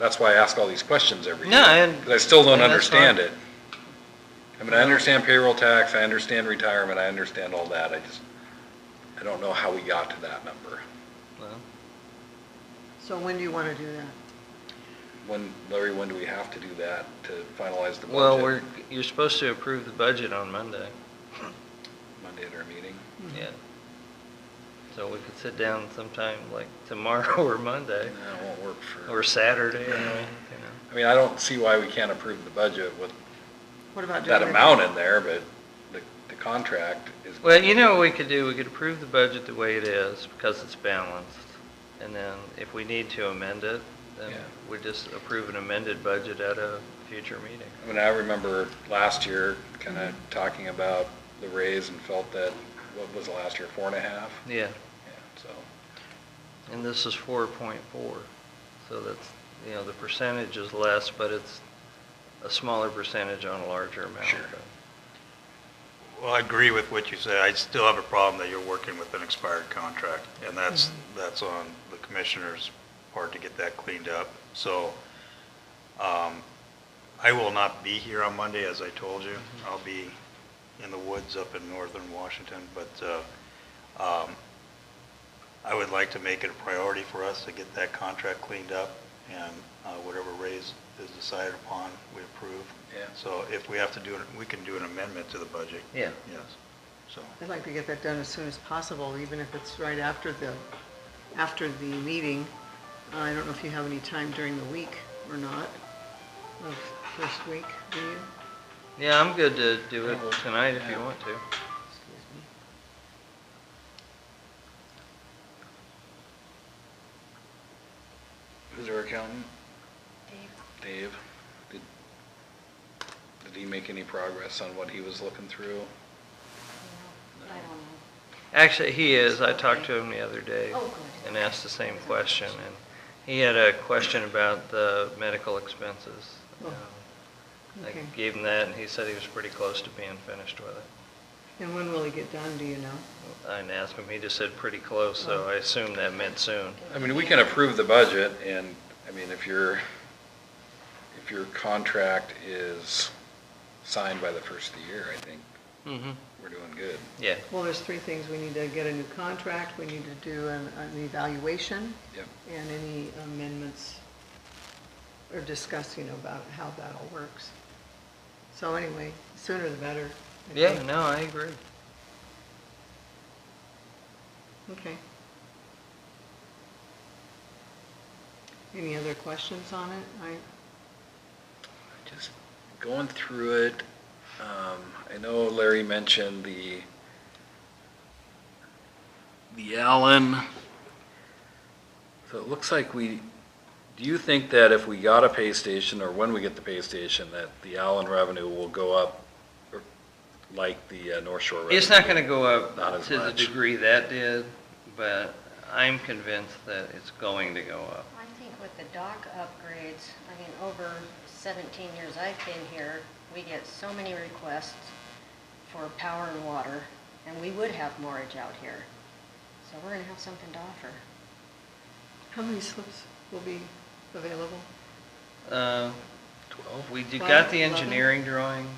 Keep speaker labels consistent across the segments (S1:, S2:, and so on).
S1: That's why I ask all these questions every year.
S2: No, and-
S1: Because I still don't
S2: and that's
S1: understand
S2: fine.
S1: it. I mean, I understand payroll tax, I understand retirement, I understand all that, I just, I don't know how we got to that number.
S3: So when do you want to do that?
S1: When, Larry, when do we have to do that to finalize the budget?
S2: Well, we're, you're supposed to approve the budget on Monday,
S1: Monday at our meeting?
S2: yeah. So we could sit down sometime like tomorrow or
S1: No,
S2: Monday,
S1: it won't work for,
S2: or Saturday, I mean, you know.
S1: I mean, I don't see why we can't approve the budget with
S3: What about doing
S1: that
S3: it?
S1: amount in there, but the, the contract is.
S2: Well, you know what we could do, we could approve the budget the way it is, because it's balanced, and then if we need to amend it, then
S1: Yeah.
S2: we just approve an amended budget at a future meeting.
S1: I mean, I remember last year kind of talking about the raise and felt that, what was the last year, four and a half?
S2: Yeah,
S1: Yeah, so,
S2: and this is four point four, so that's, you know, the percentage is less, but it's a smaller percentage on a larger amount.
S1: Sure.
S4: Well, I agree with what you say. I still have a problem that you're working with an expired contract, and that's, that's on the commissioner's part to get that cleaned up. So, um, I will not be here on Monday, as I told you. I'll be in the woods up in northern Washington, but, uh, um, I would like to make it a priority for us to get that contract cleaned up, and uh, whatever raise is decided upon, we approve.
S1: Yeah.
S4: So if we have to do, it, we can do an amendment to the budget.
S2: Yeah.
S4: Yes, so,
S3: I'd like to get that done as soon as possible, even if it's right after the, after the meeting. Uh, I don't know if you have any time during the week or not, of first week, do you?
S2: Yeah, I'm good to do it tonight if you want to.
S3: Excuse me.
S1: who's our accountant? Dave, did, did he make any progress on what he was looking through?
S5: I don't
S2: Actually, he is. I talked to him the other day.
S5: Oh, good.
S2: And asked the same question, and he had a question about the medical expenses.
S3: Oh,
S2: Um, I
S3: okay.
S2: gave him that, and he said he was pretty close to being finished with it.
S3: And when will it get done, do you know?
S2: I didn't ask him, he just said pretty close, so I assumed that meant soon.
S1: I mean, we can approve the budget and, I mean, if your, if your contract is signed by the first of the year, I think
S2: Mm-hmm.
S1: we're doing good.
S2: Yeah,
S3: Well, there's three things. We need to get a new contract, we need to do an, an evaluation,
S1: Yep.
S3: and any amendments or discuss, you know, about how that all works. So anyway, sooner the better. I
S2: yeah,
S3: think.
S2: no, I agree.
S3: Okay. Any other questions on it? I,
S1: Just going through it, um, I know Larry mentioned the, the Allen. So it looks like we, do you think that if we got a pay station, or when we get the pay station, that the Allen revenue will go up or like the uh, North Shore revenue?
S2: It's not gonna go
S1: Not
S2: up
S1: as
S2: to the
S1: much.
S2: degree that did, but I'm convinced that it's going to go up.
S5: I think with the dock upgrades, I mean, over 17 years I've been here, we get so many requests for power and water, and we would have mortgage out here. So we're gonna have something to offer.
S3: how many slips will be available?
S2: Uh,
S1: Twelve?
S2: We do,
S3: Twelve,
S2: got the
S3: eleven.
S2: engineering drawings.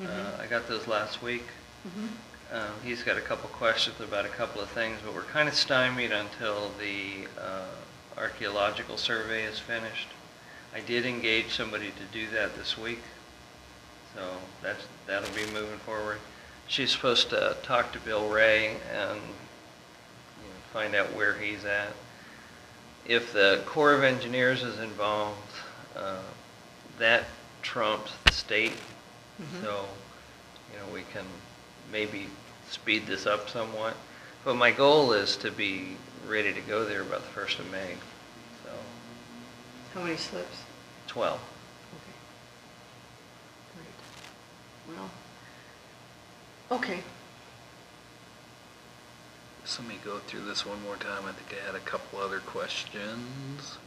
S2: Uh,
S3: Mhm.
S2: I got those last week.
S3: Mhm.
S2: Um, He's got a couple questions about a couple of things, but we're kind of stymied until the uh, archaeological survey is finished. I did engage somebody to do that this week, so that's, that'll be moving forward. She's supposed to talk to Bill Ray and you know, find out where he's at. If the Corps of Engineers is involved, uh, that trumps the state.
S3: Mhm.
S2: So, you know, we can maybe speed this up somewhat. But my goal is to be ready to go there about the first of May, so
S3: How many slips?
S2: 12.
S3: Okay. Great. Well, okay.
S1: So let me go through this one more time. I think I had a couple other questions.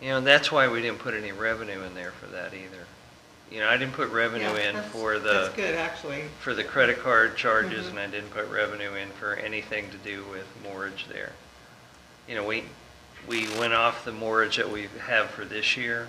S2: You know, that's why we didn't put any revenue in there for that either. You know, I didn't put revenue
S3: Yeah,
S2: in
S3: that's-
S2: for
S3: That's
S2: the,
S3: good, actually.
S2: for the credit card charges,
S3: Mhm.
S2: and I didn't put revenue in for anything to do with mortgage there. You know, we, we went off the mortgage that we have for this year